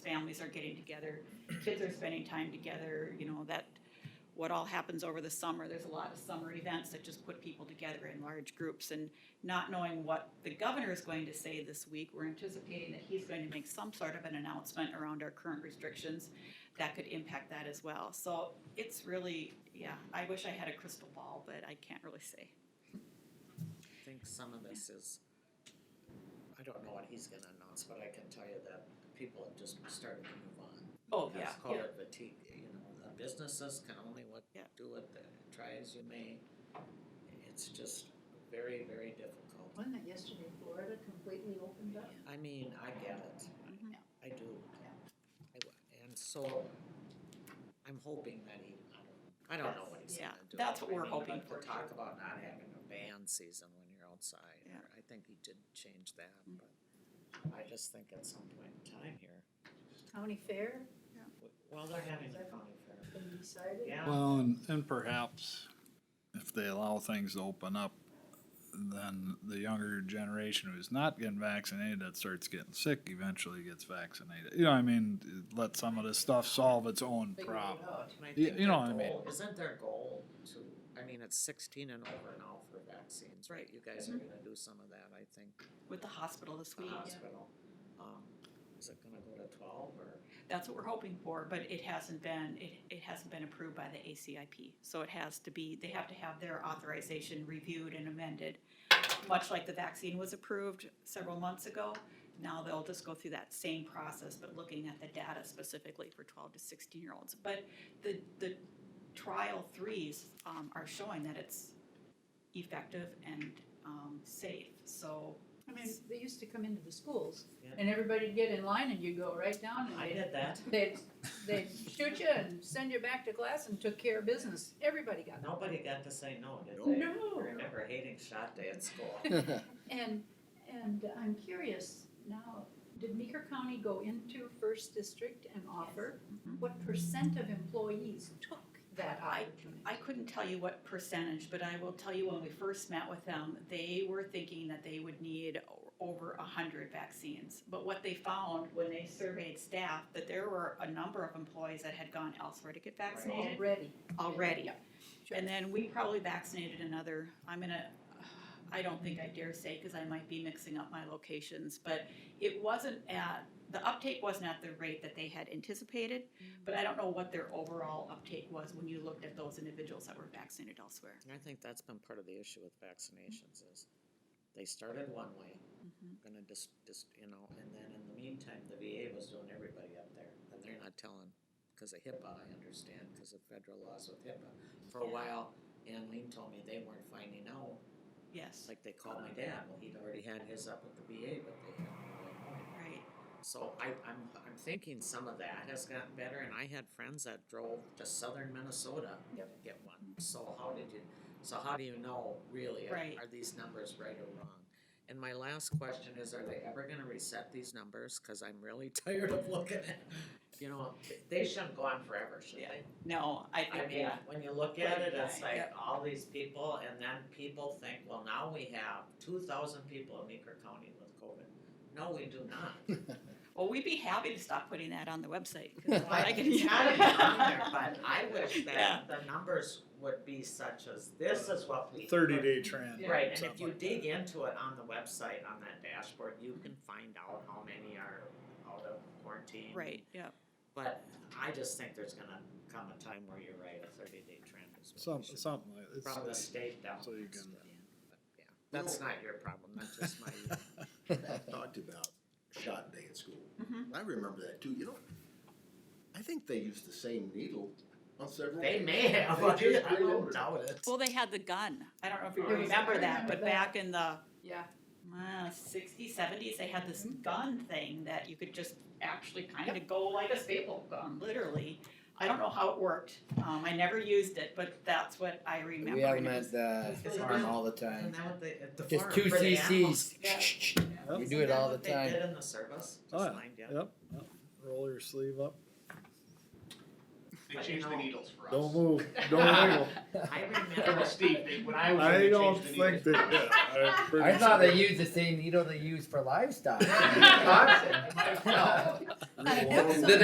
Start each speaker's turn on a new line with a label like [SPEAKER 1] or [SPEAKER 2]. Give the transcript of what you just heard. [SPEAKER 1] families are getting together, kids are spending time together, you know, that, what all happens over the summer, there's a lot of summer events that just put people together in large groups, and not knowing what the governor is going to say this week, we're anticipating that he's going to make some sort of an announcement around our current restrictions that could impact that as well, so it's really, yeah, I wish I had a crystal ball, but I can't really say.
[SPEAKER 2] I think some of this is, I don't know what he's gonna announce, but I can tell you that people have just started to move on.
[SPEAKER 1] Oh, yeah,
[SPEAKER 2] Let's call it fatigue, you know, the businesses can only what,
[SPEAKER 1] Yeah.
[SPEAKER 2] do what, they- try as you may. It's just very, very difficult.
[SPEAKER 3] Wasn't it yesterday Florida completely opened up?
[SPEAKER 2] I mean, I get it,
[SPEAKER 1] Mhm.
[SPEAKER 2] I do.
[SPEAKER 3] Yeah.
[SPEAKER 2] I w- And so, I'm hoping that he, I don't, I don't know what he's
[SPEAKER 1] Yeah,
[SPEAKER 2] gonna do.
[SPEAKER 1] that's what
[SPEAKER 2] I
[SPEAKER 1] we're
[SPEAKER 2] mean,
[SPEAKER 1] hoping
[SPEAKER 2] but
[SPEAKER 1] for,
[SPEAKER 2] To talk
[SPEAKER 1] sure.
[SPEAKER 2] about not having a band season when you're outside,
[SPEAKER 1] Yeah.
[SPEAKER 2] or I think he did change that,
[SPEAKER 1] Mm.
[SPEAKER 2] but I just think at some point in time here,
[SPEAKER 3] County Fair,
[SPEAKER 2] w- well, they're having their county fair.
[SPEAKER 3] they decided.
[SPEAKER 2] Yeah,
[SPEAKER 4] Well, and, and perhaps if they allow things to open up, then the younger generation who's not getting vaccinated that starts getting sick eventually gets vaccinated. You know, I mean, let some of this stuff solve its own
[SPEAKER 3] Figured it
[SPEAKER 4] problem.
[SPEAKER 3] out.
[SPEAKER 2] and I
[SPEAKER 4] you
[SPEAKER 2] think their
[SPEAKER 4] know what I mean.
[SPEAKER 2] goal, isn't their goal to, I mean, it's sixteen and over now for vaccines, right? You guys
[SPEAKER 1] Mm-hmm.
[SPEAKER 2] are gonna do some of that, I think,
[SPEAKER 1] with the hospital this
[SPEAKER 2] the
[SPEAKER 1] week,
[SPEAKER 2] hospital. Um, is it gonna go to twelve or?
[SPEAKER 1] that's what we're hoping for, but it hasn't been, it, it hasn't been approved by the ACIP. So it has to be, they have to have their authorization reviewed and amended, much like the vaccine was approved several months ago. Now they'll just go through that same process, but looking at the data specifically for twelve to sixteen-year-olds. But the, the trial threes, um, are showing that it's effective and, um, safe, so.
[SPEAKER 3] I mean, they used to come into the schools
[SPEAKER 2] Yeah.
[SPEAKER 3] and everybody'd get in line and you go right down and
[SPEAKER 2] I
[SPEAKER 3] they'd,
[SPEAKER 2] did that.
[SPEAKER 3] they'd, they'd shoot you and send you back to class and took care of business. Everybody got that.
[SPEAKER 2] Nobody got to say no, did
[SPEAKER 4] Nope.
[SPEAKER 2] they?
[SPEAKER 3] No.
[SPEAKER 2] I remember hating shot day at school.
[SPEAKER 3] And, and I'm curious now, did Meeker County go into first district and offer?
[SPEAKER 1] Mhm.
[SPEAKER 3] What percent of employees took that
[SPEAKER 1] I-
[SPEAKER 3] opportunity?
[SPEAKER 1] I couldn't tell you what percentage, but I will tell you when we first met with them, they were thinking that they would need o- over a hundred vaccines. But what they found when they surveyed staff, that there were a number of employees that had gone elsewhere to get vaccinated
[SPEAKER 3] Already.
[SPEAKER 1] already.
[SPEAKER 3] Sure.
[SPEAKER 1] And then we probably vaccinated another, I'm gonna, I don't think I dare say, cause I might be mixing up my locations, but it wasn't at, the uptake wasn't at the rate that they had anticipated, but I don't know what their overall uptake was when you looked at those individuals that were vaccinated elsewhere.
[SPEAKER 2] I think that's been part of the issue with vaccinations is they started one way,
[SPEAKER 1] Mm-hmm.
[SPEAKER 2] gonna just, just, you know, and then in the meantime, the VA was doing everybody up there. And they're not telling, cause of HIPAA, I understand, cause of federal laws with HIPAA. For a
[SPEAKER 1] Yeah.
[SPEAKER 2] while, Anlene told me they weren't finding out. It's
[SPEAKER 1] Yes,
[SPEAKER 2] like they called my dad, well, he'd already had his up with the VA, but they hadn't really known.
[SPEAKER 1] right,
[SPEAKER 2] So I, I'm, I'm thinking some of that has gotten better, and I had friends that drove to southern Minnesota to
[SPEAKER 3] Yep.
[SPEAKER 2] get one. So how did you, so how do you know really, are,
[SPEAKER 1] Right.
[SPEAKER 2] are these numbers right or wrong? And my last question is, are they ever gonna reset these numbers? Cause I'm really tired of looking at, you know, they shouldn't go on forever, should
[SPEAKER 1] Yeah.
[SPEAKER 2] they?
[SPEAKER 1] no, I
[SPEAKER 2] I
[SPEAKER 1] think,
[SPEAKER 2] mean,
[SPEAKER 1] yeah,
[SPEAKER 2] when you look at it, it's
[SPEAKER 1] Right,
[SPEAKER 2] like all these people, and then people think, well, now we have two thousand people in Meeker County with COVID. No, we do not.
[SPEAKER 1] well, we'd be happy to stop putting that on the website. 'cause
[SPEAKER 2] Well,
[SPEAKER 1] I can-
[SPEAKER 2] it's gotta be on there, but I wish
[SPEAKER 1] Yeah.
[SPEAKER 2] that the numbers would be such as, this is what we.
[SPEAKER 4] Thirty day trend.
[SPEAKER 2] Right, and if
[SPEAKER 4] something
[SPEAKER 2] you
[SPEAKER 4] like
[SPEAKER 2] dig into it on the website, on that dashboard, you can find out how many are out of quarantine.
[SPEAKER 1] Right, yeah,
[SPEAKER 2] But I just think there's gonna come a time where you're right, a thirty day trend is what
[SPEAKER 4] Some,
[SPEAKER 2] we should-
[SPEAKER 4] something like this.
[SPEAKER 2] From the state down.
[SPEAKER 4] So you
[SPEAKER 2] That's
[SPEAKER 4] can-
[SPEAKER 2] what- yeah. That's not your problem, that's just my,
[SPEAKER 5] talked about shot day at school.
[SPEAKER 1] Mhm.
[SPEAKER 5] I remember that too, you know. I think they used the same needle on several.
[SPEAKER 2] they may have,
[SPEAKER 5] They just
[SPEAKER 2] I don't
[SPEAKER 5] reloaded.
[SPEAKER 2] doubt it.
[SPEAKER 1] well, they had the gun, I don't know if you
[SPEAKER 3] There was- I
[SPEAKER 1] remember that,
[SPEAKER 3] remember
[SPEAKER 1] but
[SPEAKER 3] that.
[SPEAKER 1] back in the
[SPEAKER 3] Yeah,
[SPEAKER 1] uh, 60s, 70s, they had this gun thing that you could just actually kind of go like a staple gun, literally. I don't know how it worked. Um, I never used it, but that's what I remember.
[SPEAKER 6] We have them at the
[SPEAKER 2] Is it
[SPEAKER 6] farm
[SPEAKER 2] that-
[SPEAKER 6] all the
[SPEAKER 2] Isn't
[SPEAKER 6] time.
[SPEAKER 2] that what they, at the
[SPEAKER 6] Just
[SPEAKER 2] farm,
[SPEAKER 6] two
[SPEAKER 2] for the animals?
[SPEAKER 6] CCs. We do
[SPEAKER 2] Isn't
[SPEAKER 6] it
[SPEAKER 2] that
[SPEAKER 6] all the
[SPEAKER 2] what they
[SPEAKER 6] time.
[SPEAKER 2] did in the service?
[SPEAKER 4] Oh,
[SPEAKER 2] Just
[SPEAKER 4] yeah.
[SPEAKER 2] lined you up?
[SPEAKER 4] Yep, yep. roll your sleeve up.
[SPEAKER 7] They
[SPEAKER 2] But, you
[SPEAKER 7] changed the
[SPEAKER 2] know,
[SPEAKER 7] needles for us.
[SPEAKER 4] Don't move, don't wiggle.
[SPEAKER 2] I
[SPEAKER 7] That
[SPEAKER 2] remember,
[SPEAKER 7] was Steve, they, when I was there,
[SPEAKER 4] I
[SPEAKER 7] they
[SPEAKER 4] don't
[SPEAKER 7] changed the needles.
[SPEAKER 4] think that, yeah, I'm pretty
[SPEAKER 6] I thought
[SPEAKER 4] sure.
[SPEAKER 6] they used the same needle they use for livestock.
[SPEAKER 7] Wisconsin.
[SPEAKER 6] Well,
[SPEAKER 3] I hope so.
[SPEAKER 6] Did